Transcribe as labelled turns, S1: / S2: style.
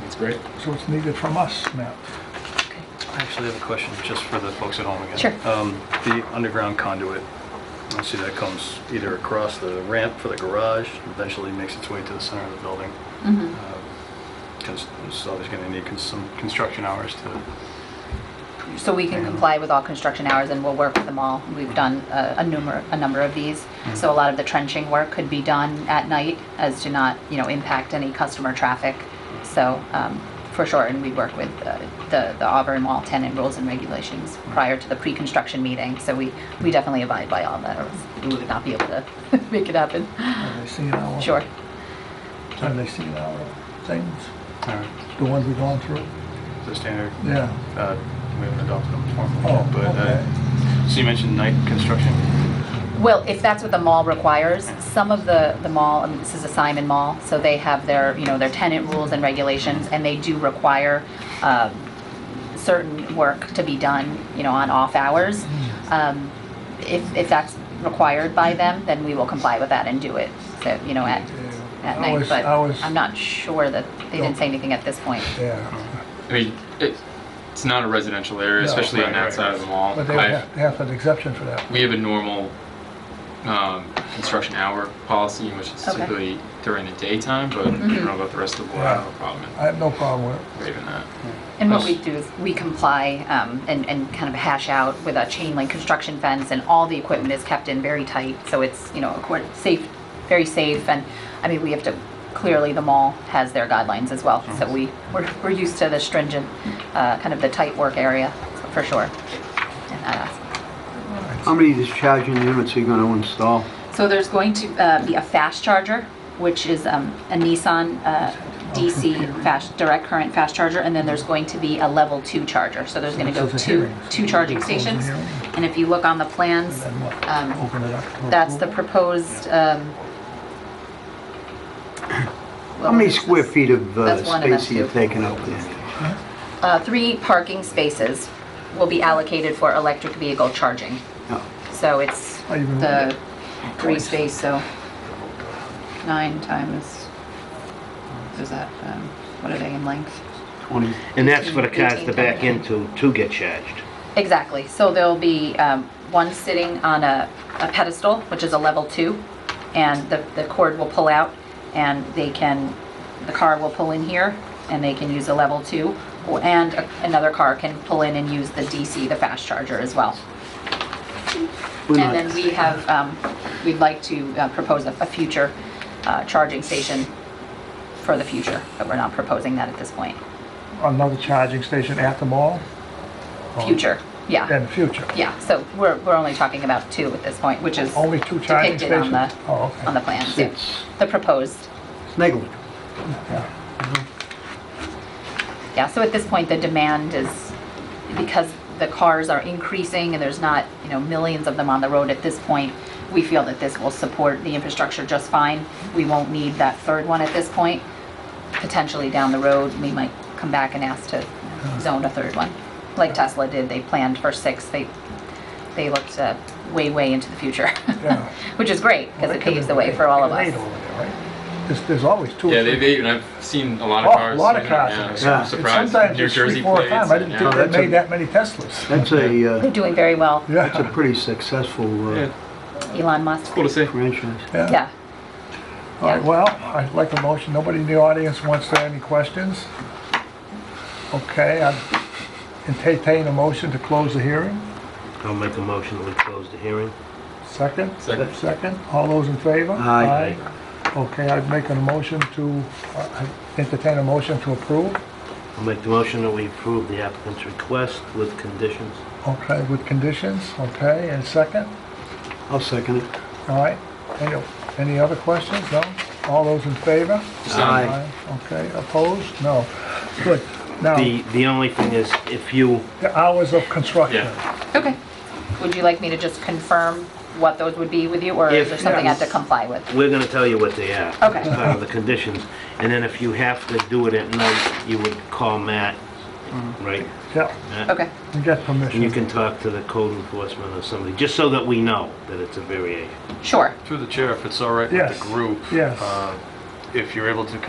S1: That's great.
S2: So it's needed from us now.
S3: Okay.
S4: I actually have a question just for the folks at home again.
S3: Sure.
S4: Um, The underground conduit, I see that comes either across the ramp for the garage, eventually makes its way to the center of the building. Because it's always going to need cons- some construction hours to,
S3: So we can comply with all construction hours and we'll work with them all. We've done uh, a number, a number of these. So a lot of the trenching work could be done at night as to not, you know, impact any customer traffic. So um, for sure, and we work with uh, the the Auburn Wall tenant rules and regulations prior to the pre-construction meeting. So we, we definitely abide by all that or else we would not be able to make it happen.
S2: Have they seen our?
S3: Sure.
S2: Have they seen our things,
S4: all right,
S2: the ones we've gone through?
S4: uh, the standard,
S2: Yeah.
S4: uh, we haven't adopted them formally.
S2: Oh,
S4: yet, but, uh,
S2: okay.
S4: So you mentioned night construction?
S3: Well, if that's what the mall requires, some of the, the mall, I mean, this is a Simon Mall, so they have their, you know, their tenant rules and regulations, and they do require um, certain work to be done, you know, on off hours. Um, If, if that's required by them, then we will comply with that and do it, so, you know, at, at
S2: I
S3: night.
S2: was-
S3: But
S2: I was-
S3: I'm not sure that, they didn't say anything at this point.
S2: Yeah,
S1: I mean, it, it's not a residential area,
S2: No,
S1: especially on
S4: right,
S1: that
S4: right,
S1: side of the mall.
S2: but they would
S1: I-
S2: have, they have an exception for that.
S1: we have a normal um, construction hour policy, which is
S3: Okay.
S1: typically during the daytime, but I don't know about the rest of the board. I don't have a problem
S2: I have no problem with it.
S1: in waiving that.
S3: And what we do is we comply um, and, and kind of hash out with a chain link construction fence and all the equipment is kept in very tight. So it's, you know, accord- safe, very safe. And I mean, we have to, clearly the mall has their guidelines as well. So we, we're, we're used to the stringent, uh, kind of the tight work area for sure. uh, in that aspect.
S5: How many of these charging units are you going to install?
S3: So there's going to uh, be a fast charger, which is um, a Nissan uh, DC fast, direct current fast charger, and then there's going to be a level two charger. So there's going to
S2: So
S3: go
S2: it's a
S3: two,
S2: hearing.
S3: two charging
S2: Close the
S3: stations.
S2: hearing.
S3: And if you look on the plans,
S2: Then what?
S3: um,
S2: Open it up. for
S3: that's the
S2: approval?
S3: proposed. um,
S5: How many square feet of uh,
S3: That's one and
S5: space are you
S3: that's two.
S5: taking up there?
S3: uh, Three parking spaces will be allocated for electric vehicle charging.
S5: No.
S3: So it's
S2: Oh, you've been
S3: the
S2: looking
S3: three space, so nine times, what is that, um, what are they in length?
S5: 20?
S6: And that's for the cars
S3: Eighteen,
S6: to back
S3: eighteen.
S6: into to get charged.
S3: Exactly. So there'll be um, one sitting on a a pedestal, which is a level two, and the the cord will pull out, and they can, the car will pull in here, and they can use a level two, or- and a- another car can pull in and use the DC, the fast charger as well.
S5: We're
S3: And
S5: not-
S3: then we have, um, we'd like to uh, propose a a future uh, charging station for the future, but we're not proposing that at this point.
S2: Another charging station at the mall? Oh.
S3: Future, yeah.
S2: In the future?
S3: Yeah, so we're, we're only talking about two at this point, which is
S2: Only two charging
S3: depicted on the,
S2: stations? Oh, okay.
S3: on the plans, yeah.
S5: It's
S3: the proposed.
S5: it's negligible.
S2: Yeah.
S3: Yeah, so at this point, the demand is, because the cars are increasing and there's not, you know, millions of them on the road at this point, we feel that this will support the infrastructure just fine. We won't need that third one at this point. Potentially down the road, we might come back and ask to zone a third one, like Tesla did. They planned for six. They, they looked uh, way, way into the future,
S2: Yeah.
S3: which is great because it paves the way for all of
S2: They have
S3: us.
S2: eight over there, right? There's, there's always two. or
S1: Yeah, they've
S2: three.
S1: eaten. I've seen a lot
S2: Oh,
S1: of
S2: a
S1: cars.
S2: lot of
S1: you know,
S2: cars.
S1: Yeah,
S5: Yeah.
S1: I'm
S5: It's
S1: surprised.
S2: Sometimes
S1: New
S2: it's three,
S1: Jersey
S2: four at a
S1: plates.
S2: time. I didn't
S1: yeah.
S2: think
S5: that's
S2: they made
S5: a-
S2: that many Teslas.
S5: That's a,
S3: They're
S5: uh,
S3: doing very well,
S5: that's a
S2: Yeah,
S5: pretty successful
S1: Yeah,
S5: uh,
S3: Elon Musk.
S1: cool to see.
S5: franchise.
S2: yeah.
S3: Yeah.
S2: All right,
S3: yeah.
S2: well, I'd like a motion. Nobody in the audience wants to have any questions? Okay, I entertain a motion to close the hearing.
S6: I'll make a motion that we close the hearing.
S2: Second?
S1: Second.
S2: Second. All those in favor?
S5: Aye.
S2: Aye. Okay, I'd make a motion to, uh, entertain a motion to approve.
S6: I'll make the motion that we approve the applicant's request with conditions.
S2: Okay, with conditions, okay, and second?
S5: I'll second it.
S2: All right, any, any other questions? No? All those in favor?
S5: Aye.
S2: Okay, opposed? No. Good. Now,
S6: The, the only thing is, if you,
S2: the hours of construction.
S1: Yeah.
S3: Okay. Would you like me to just confirm what those would be with you, or is
S6: Yes.
S3: there something I have to
S6: Yes.
S3: comply with?
S6: we're gonna tell you what they are.
S3: Okay.
S6: It's part of the conditions. And then if you have to do it at night, you would call Matt, right?
S2: Yeah,
S6: Matt?
S3: Okay,
S2: and get
S6: And you
S2: permission.
S6: can talk to the code enforcement or somebody, just so that we know that it's a variation.
S3: sure.
S4: Through the chair, if it's all right with
S2: Yes,
S4: the group.
S2: yes.
S4: uh, If you're able to come